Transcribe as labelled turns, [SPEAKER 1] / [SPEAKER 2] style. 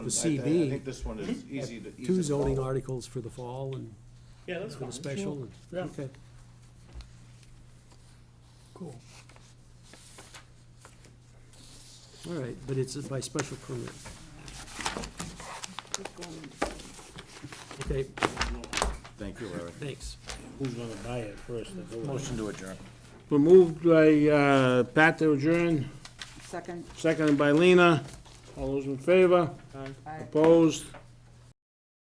[SPEAKER 1] The
[SPEAKER 2] I
[SPEAKER 1] CB,
[SPEAKER 2] think this one is easy to, easy to
[SPEAKER 1] Hmm? two zoning
[SPEAKER 2] follow.
[SPEAKER 1] articles for the fall and
[SPEAKER 3] Yeah, that's
[SPEAKER 1] for
[SPEAKER 3] fine.
[SPEAKER 1] the special. and-
[SPEAKER 3] Yeah.
[SPEAKER 1] Okay.
[SPEAKER 4] Cool.
[SPEAKER 1] All right, but it's by special permit. Okay,
[SPEAKER 2] Thank you, Larry.
[SPEAKER 1] thanks.
[SPEAKER 3] Who's gonna buy it first? the building?
[SPEAKER 2] Motion to adjourn.
[SPEAKER 4] We're moved by uh, Pat to adjourn,
[SPEAKER 5] Second,
[SPEAKER 4] seconded by Lena. All those in favor?
[SPEAKER 5] I
[SPEAKER 4] Opposed?